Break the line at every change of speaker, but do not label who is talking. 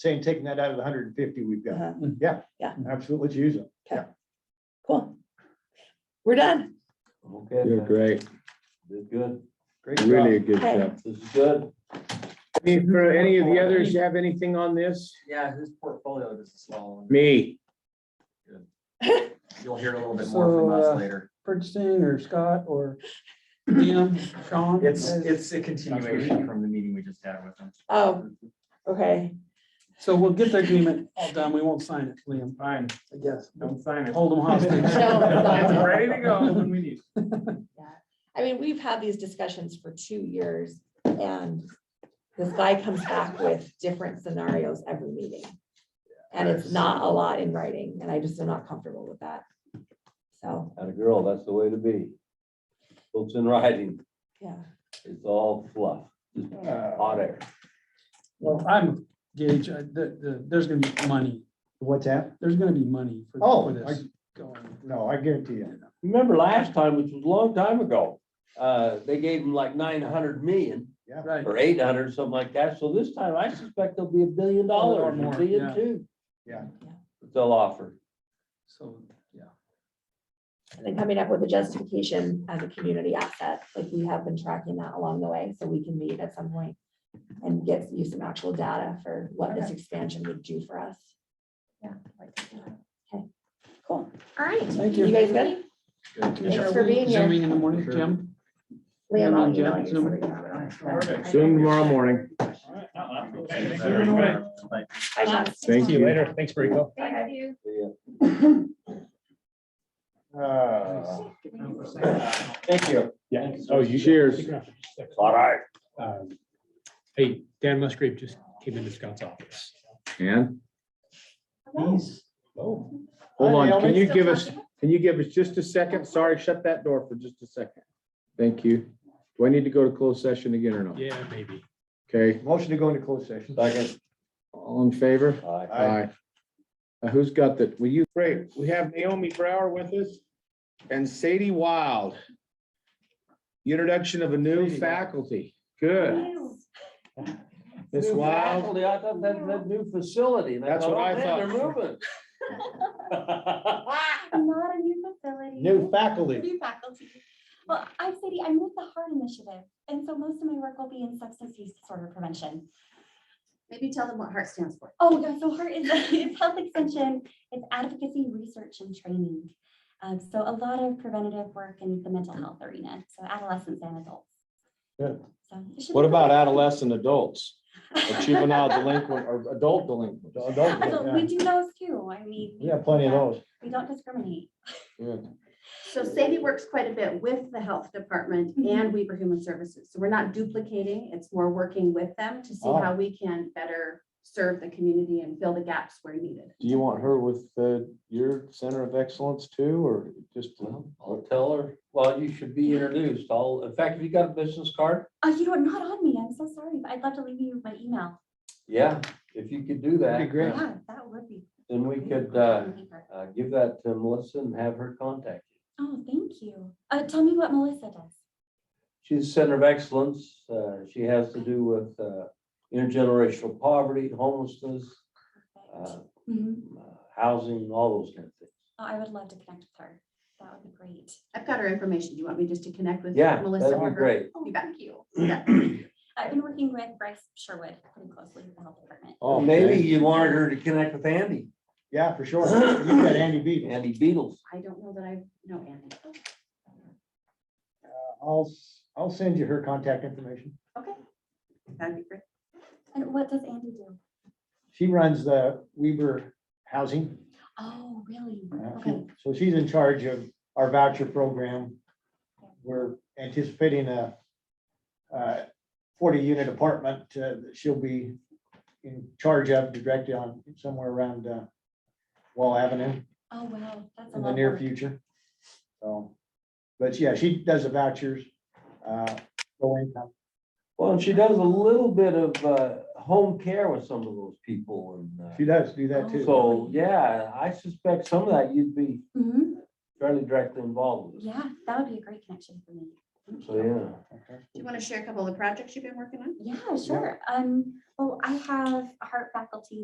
saying taking that out of the hundred and fifty we've got.
Uh-huh.
Yeah.
Yeah.
Absolutely, let's use them.
Cool. We're done.
Okay,
You're
then.
great,
Did good.
Great job.
really a good
Okay.
job.
This is good.
Any- for Any of the others have anything on this?
Yeah, whose portfolio does this fall on?
Me.
You'll hear a little bit more from
So, uh,
us later.
Bernstein or Scott or Jim, Sean?
It's, it's a continuation from the meeting we just had with them.
Oh, okay.
So we'll get the agreement all done. We won't sign it, Liam,
Fine,
I guess. We'll
don't sign it.
Hold them hostage.
It's
ready to go when we need.
I mean, we've had these discussions for two years and this guy comes back with different scenarios every meeting. And it's not a lot in writing and I just am not comfortable with that. So,
And a girl, that's the way to be. Books in writing,
yeah.
it's all fluff, just
Uh,
hot air.
Well, I'm Gage, I- the, the, there's gonna be money.
What's that?
There's gonna be money for
Oh,
for this going.
No, I guarantee you.
Remember last time, which was a long time ago, uh, they gave them like nine hundred million
Right.
or eight hundred, something like that. So this time I suspect there'll be a billion dollars,
more,
a billion
yeah.
two.
Yeah.
Yeah.
They'll offer.
So, yeah.
And then coming up with a justification as a community asset, like we have been tracking that along the way, so we can meet at some point and get you some actual data for what this expansion would do for us. Yeah. Okay, cool. All right.
Thank
You
you.
guys good?
Are
Thanks for
we
being here.
Zooming in the morning,
Sure.
Jim?
Liam, I'll
Zoom,
email you.
Zoom.
so we can have it on.
Perfect.
Soon tomorrow morning.
Bye, Sean.
Thank you.
later. Thanks, Rico.
Oh.
Bye.
Thank you.
Yeah.
Uh, Thank you.
Yeah.
Oh, you- Cheers.
All right.
Um, Hey, Dan Musgrave just came into Scott's office.
And
Oh.
hold
Hi,
on,
Naomi.
can you give us, can you give us just a second? Sorry, shut that door for just a second. Thank you. Do I need to go to closed session again or no?
Yeah, maybe.
Okay,
Motion to go into closed session.
Second.
all in favor?
Aye.
Aye.
Uh, Who's got that? Will you?
Great. We have Naomi Brower with us and Sadie Wild. Introduction of a new faculty. Good. Miss
New
Wild.
faculty, I thought that, that new facility. and
That's what
oh,
I
man, They're
thought.
moving.
Not a new facility.
New faculty.
New faculty. Well, I'm Sadie, I'm with the Heart Initiative, and so most of my work will be in substance use disorder prevention.
Maybe tell them what HEART stands for.
Oh, yeah, so Heart is, it's health extension, it's advocacy, research, and training. Um, so a lot of preventative work in the mental health arena, so adolescents and adults.
Good.
So it should
What
be
about
great.
adolescent adults or juvenile delinquent or adult delinquent?
Don't- don't-
Adult- We
yeah.
do those too, I mean.
We have plenty of those.
We don't discriminate.
So Sadie works quite a bit with the health department and Weaver Human Services. So we're not duplicating, it's more working with them to see
Oh.
how we can better serve the community and fill the gaps where needed.
Do you want her with uh, your center of excellence too, or just?
Well, I'll tell her, well, you should be introduced. I'll, in fact, have you got a business card?
Oh, you know, what, not on me, I'm so sorry, but I'd love to leave you my email.
Yeah, if you could do that.
That'd be great.
uh,
Yeah, that would be.
Then we could, uh, uh, give that to Melissa and have her contact you.
Oh, thank you. Uh, tell me what Melissa does.
She's a Center of Excellence. Uh, she has to do with, uh, intergenerational poverty, homelessness, uh,
Mhm.
housing, all those kind of things.
Oh, I would love to connect with her. That would be great.
I've got her information. Do you want me just to connect with
Yeah,
Melissa?
that'd
or
be
her?
great.
Oh,
You bet.
thank you.
Yeah.
I've been working with Bryce Sherwood pretty closely with the health department.
Oh,
Maybe you wanted her to connect with Andy,
Yeah, for sure. You've got Andy beat.
Andy Beatles.
I don't know that I know Andy.
Oh.
Uh, I'll, s- I'll send you her contact information.
Okay. That'd be great.
And what does Andy do?
She runs the Weber Housing.
Oh, really?
Uh, she-
Okay.
So she's in charge of our voucher program. We're anticipating a forty-unit apartment uh, that she'll be in charge of directly on somewhere around uh, Wall Avenue
Oh, wow. That's a
in
lot.
the
of
near
work.
future. So, but yeah, she does the vouchers. uh, low income.
Well, and she does a little bit of uh, home care with some of those people
She
and
does do
Oh.
that
uh,
too.
so, yeah, I suspect some of that you'd be
Mhm.
fairly directly involved with.
Yeah, that would be a great connection for me.
So, yeah.
Do you want to share a couple of the projects you've been working on?
Yeah, sure. Um, well, I have a heart faculty